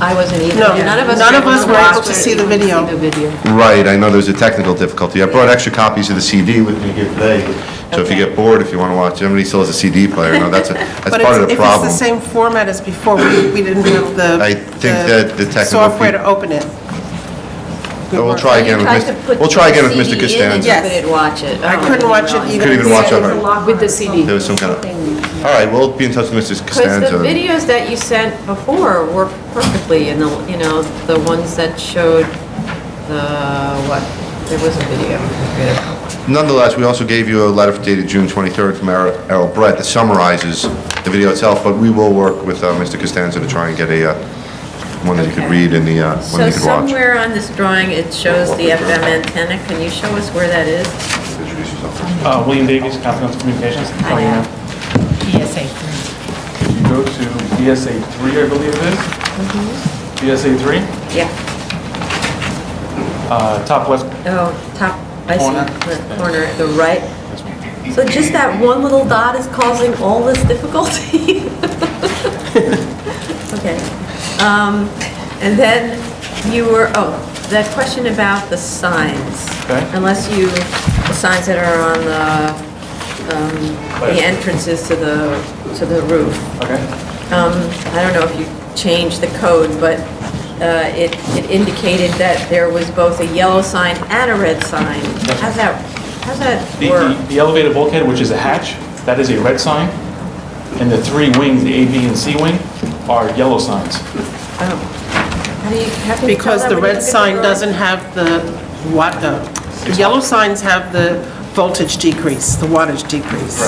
I wasn't either. No, None of us. none of able us to were able watch to it, see the even video. See the video. Right, I know there's a technical difficulty. I brought extra copies of the CD with me here today, so if you get bored, if you want to watch, everybody still has a CD player, I know that's, a- that's But part of it's- the if it's problem. the same format as before, we we didn't have the. I think that the technical Software peop- to open it. But We'll try again with tried to Mr., put we'll try again with the Mr. CD in and Costanza. Yes. Couldn't watch it. Oh, I couldn't watch it even. Couldn't even watch it. With the CD. There was some kind of, all right, we'll be in touch with Mr. Because the Costanza. videos that you sent before were perfectly, and the, you know, the ones that showed the, what, there was a video. Nonetheless, we also gave you a letter dated June 23rd from Er- Errol Brett that summarizes the video itself, but we will work with uh, Mr. Costanza to try and get a, uh, one that you could Okay. read and the, uh, one that So you could watch. somewhere on this drawing, it shows the FM antenna. Can you show us where that is? Introduce yourself. Uh, William Davies, Confidential Communications. How are you? You go to E BSA 3, I believe it is. E BSA 3, Yeah. uh, top left. Oh, top, I Corner. see, the corner, the right. So just that one little dot is causing all this difficulty? Okay. Um, And then you were, oh, that question about the signs. Okay. Unless you, the signs that are on the, um, the entrances to the, to the roof. Okay. Um, I don't know if you changed the code, but uh, it it indicated that there was both a yellow sign and a red sign. How's that, how's that The- The work? the elevated bulkhead, which is a hatch, that is a red sign. And the three wings, the A, B, and C wing, are yellow signs. Oh. How do you, how can you tell Because that the when you red look at sign drawing? doesn't have the what, the the yellow signs have the voltage decrease, the wattage decrease.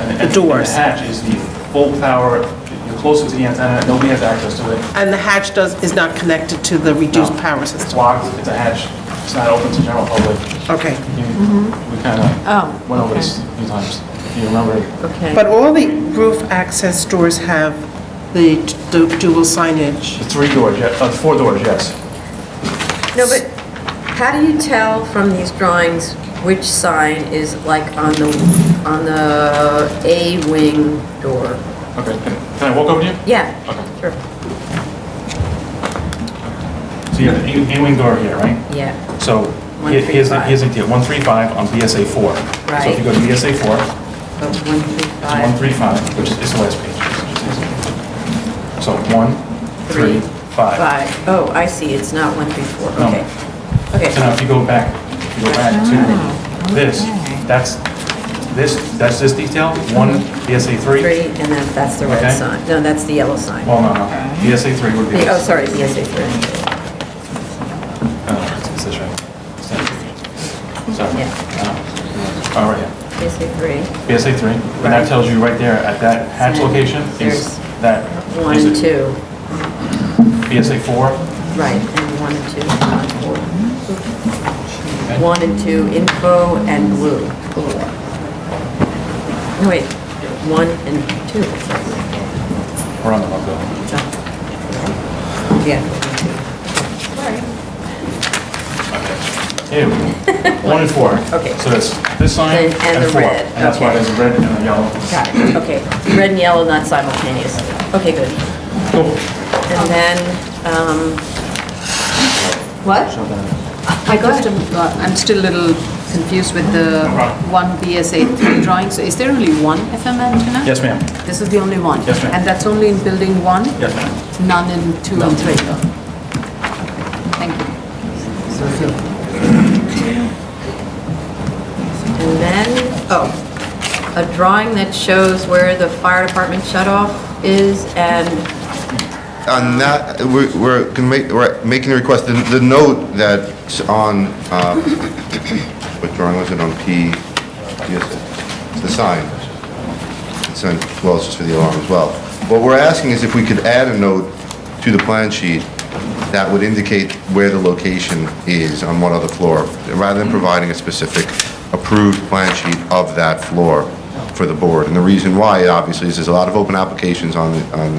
And and- The doors. And the hatch is the full power, you're closer to the antenna, nobody has access to it. And the hatch does, is not connected to the reduced power It's system. locked, it's a hatch, it's not open to general public. Okay. You- Mm-hmm. We kind Oh, of went over this a few times, if you remember. Okay. But all the roof access doors have the du- dual signage. The three doors, yeah, uh, four doors, yes. No, but how do you tell from these drawings which sign is like on the, on the A wing door? Okay, can can I walk over to you? Yeah, Okay. sure. So you have the A-wing door here, right? Yeah, So here- here's, the- here's the deal, 135 on BSA 4. So if you go to BSA 4, it's but one, three, five, 135, which is it's the last page. So 1, 3, Three, 5. five. Oh, I see, it's not one, three, four, No. okay. So Okay, Ah, now if you go back, if you go back to this, that's, this, that's this detail, 1 BSA 3. three, and then that's the red Okay. sign. No, that's the yellow sign. Well, no, no, BSA 3 would be The- Oh, this. sorry, yes, it's three. Oh, it's- it's this right? It's that. Sorry. Yeah. Oh, oh, right here. Yes, it's three. PSA 3, and that tells you right there at that hatch Right. location is There's that. One, is it two, PSA 4, right, and one and two, not four. One and two, info and blue. No, wait, one and two. we're on the logo. Yeah. Ew, 1 and 4. Okay. So that's this sign And- and and the 4. red, And that's why okay. there's a red and a yellow. Got it, okay. Red and yellow, not simultaneous. Okay, good. Cool. And then, um, what? I just, am- uh, I'm still a little confused with the one BSA three drawing. So is there only one FM antenna? Yes, ma'am. This is the only one? Yes, ma'am. And that's only in building one? Yes, ma'am. None in two and three? Thank you. And then, oh, a drawing that shows where the fire department shut-off is and, On that, we're, we're gonna make- we're making a request, the, the note that's on, uh, what drawing was it, on P, yes, it's the sign. It's on, well, it's just for the alarm as well. What we're asking is if we could add a note to the plan sheet that would indicate where the location is on what other floor, rather than providing a specific approved plan sheet of that floor for the board. And the reason why, obviously, is there's a lot of open applications on, on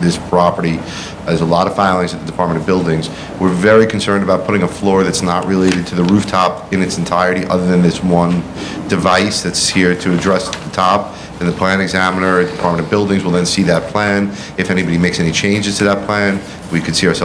this property. There's a lot of filings at the Department of Buildings. We're very concerned about putting a floor that's not related to the rooftop in its entirety, other than this one device that's here to address the top. Then the plan examiner, Department of Buildings will then see that plan. If anybody makes any changes to that plan, we could see ourselves